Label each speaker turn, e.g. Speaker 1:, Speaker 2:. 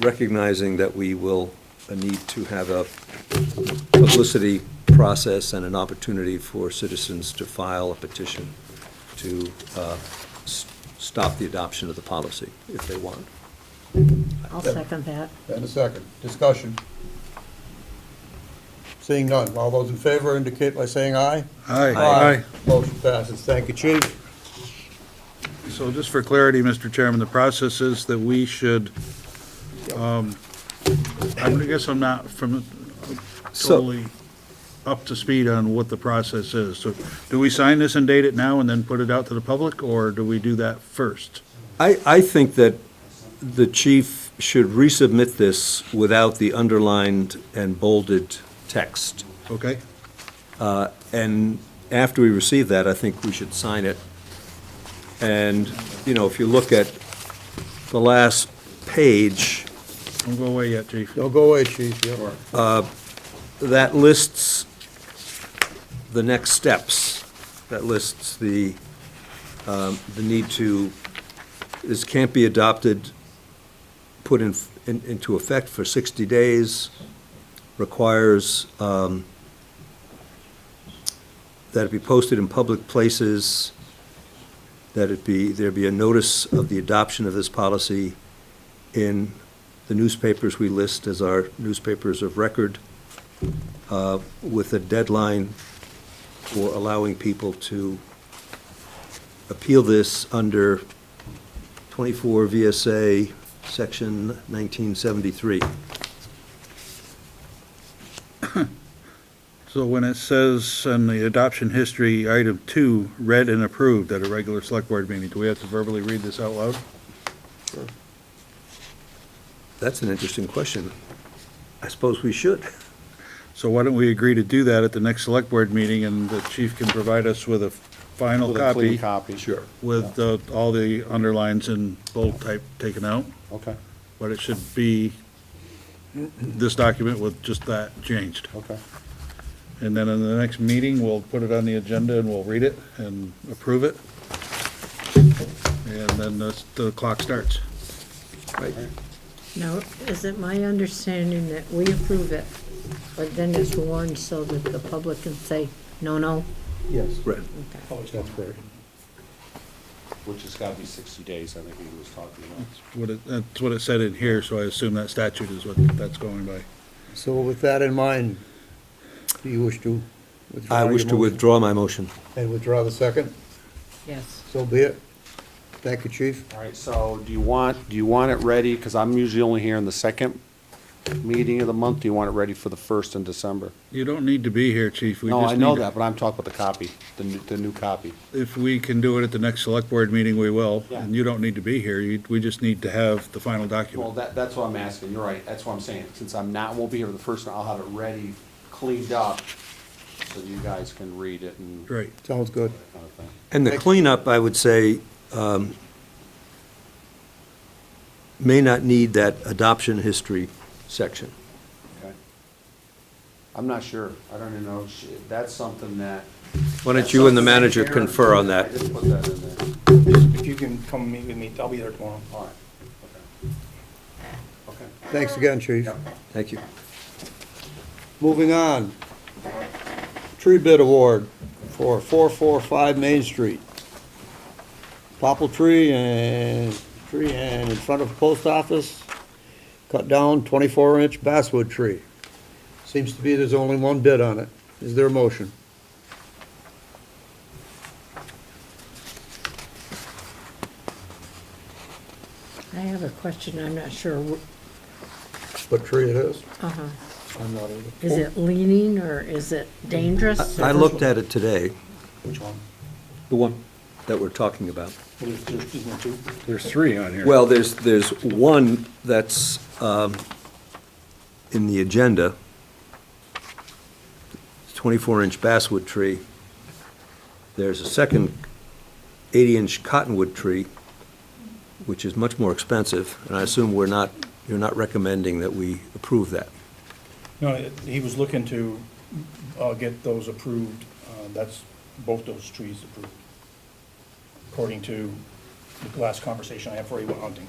Speaker 1: recognizing that we will need to have a publicity process and an opportunity for citizens to file a petition to uh, s- stop the adoption of the policy if they want.
Speaker 2: I'll second that.
Speaker 3: And a second. Discussion. Seeing none. All those in favor indicate by saying aye.
Speaker 4: Aye.
Speaker 3: Motion passes. Thank you, chief.
Speaker 4: So just for clarity, Mr. Chairman, the process is that we should, um, I guess I'm not from,
Speaker 1: So,
Speaker 4: totally up to speed on what the process is. So do we sign this and date it now and then put it out to the public, or do we do that first?
Speaker 1: I, I think that the chief should resubmit this without the underlined and bolded text.
Speaker 4: Okay?
Speaker 1: And after we receive that, I think we should sign it. And, you know, if you look at the last page,
Speaker 4: Don't go away yet, chief.
Speaker 3: Don't go away, chief. Yeah.
Speaker 1: that lists the next steps. That lists the, um, the need to, this can't be adopted, put in, in- into effect for 60 days, requires um, that it be posted in public places, that it be, there be a notice of the adoption of this policy in the newspapers we list as our newspapers of record uh, with a deadline for allowing people to appeal this under 24 VSA, Section 1973.
Speaker 4: So when it says in the adoption history, item two, read and approved at a regular select board meeting, do we have to verbally read this out loud?
Speaker 1: That's an interesting question. I suppose we should.
Speaker 4: So why don't we agree to do that at the next select board meeting, and the chief can provide us with a final
Speaker 5: With a clean
Speaker 4: copy
Speaker 5: copy. Sure.
Speaker 4: with uh, all the underlines and bold type taken out?
Speaker 5: Okay,
Speaker 4: But it should be this document with just that changed.
Speaker 5: okay.
Speaker 4: And then in the next meeting, we'll put it on the agenda and we'll read it and approve it. And then the- the clock starts.
Speaker 2: Now, is it my understanding that we approve it, but then it's warned so that the public can say, no, no?
Speaker 3: Yes.
Speaker 1: Right.
Speaker 2: Okay.
Speaker 3: That's fair.
Speaker 5: Which has got to be 60 days, I think he was talking about.
Speaker 4: What it- That's what it said in here, so I assume that statute is what that's going by.
Speaker 3: So with that in mind, do you wish to withdraw
Speaker 1: I
Speaker 3: your
Speaker 1: wish to
Speaker 3: motion?
Speaker 1: withdraw my motion.
Speaker 3: And withdraw the second?
Speaker 2: Yes.
Speaker 3: So be it. Thank you, chief.
Speaker 5: All right, so do you want, do you want it ready, because I'm usually only here in the second meeting of the month, do you want it ready for the first in December?
Speaker 4: You don't need to be here, chief. We
Speaker 5: No,
Speaker 4: just
Speaker 5: I know
Speaker 4: need-
Speaker 5: that, but I'm talking about the copy, the new, the new copy.
Speaker 4: If we can do it at the next select board meeting, we will.
Speaker 5: Yeah.
Speaker 4: And you don't need to be here. You- We just need to have the final
Speaker 5: Well,
Speaker 4: document.
Speaker 5: that, that's what I'm asking, you're right, that's what I'm saying, since I'm not, won't be here for the first, I'll have it ready, cleaned up, so you guys can read it and that
Speaker 4: Right.
Speaker 3: Sounds good.
Speaker 5: kind of thing.
Speaker 1: And the
Speaker 3: Thank you.
Speaker 1: cleanup, I would say, um, may not need that adoption history section.
Speaker 5: Okay. I'm not sure, I don't even know, Sh- that's something that.
Speaker 1: Why don't you and the manager
Speaker 5: That's something
Speaker 1: confer on that?
Speaker 5: I just put that in there.
Speaker 6: If you can come meet with me, I'll be there tomorrow.
Speaker 5: All right, okay.
Speaker 3: Thanks again, chief.
Speaker 5: Yep.
Speaker 1: Thank you.
Speaker 3: Moving on. Tree bid award for 445 Main Street. Popple tree and, tree and in front of post office, cut down 24-inch basswood tree. Seems to be there's only one bid on it. Is there a motion?
Speaker 2: I have a question, I'm not sure, wh-
Speaker 3: What tree it is?
Speaker 2: uh-huh,
Speaker 3: I'm not either.
Speaker 2: is it leaning or is it dangerous?
Speaker 1: I I looked at it today,
Speaker 6: Which one?
Speaker 1: the one that we're talking about.
Speaker 6: Well, there's, there's, isn't there two?
Speaker 4: There's three on here.
Speaker 1: Well, there's, there's one that's um, in the agenda, 24-inch basswood tree. There's a second 80-inch cottonwood tree, which is much more expensive, and I assume we're not, you're not recommending that we approve that.
Speaker 6: No, it- he was looking to, uh, get those approved, uh, that's, both those trees approved. According to the last conversation I had before he went hunting.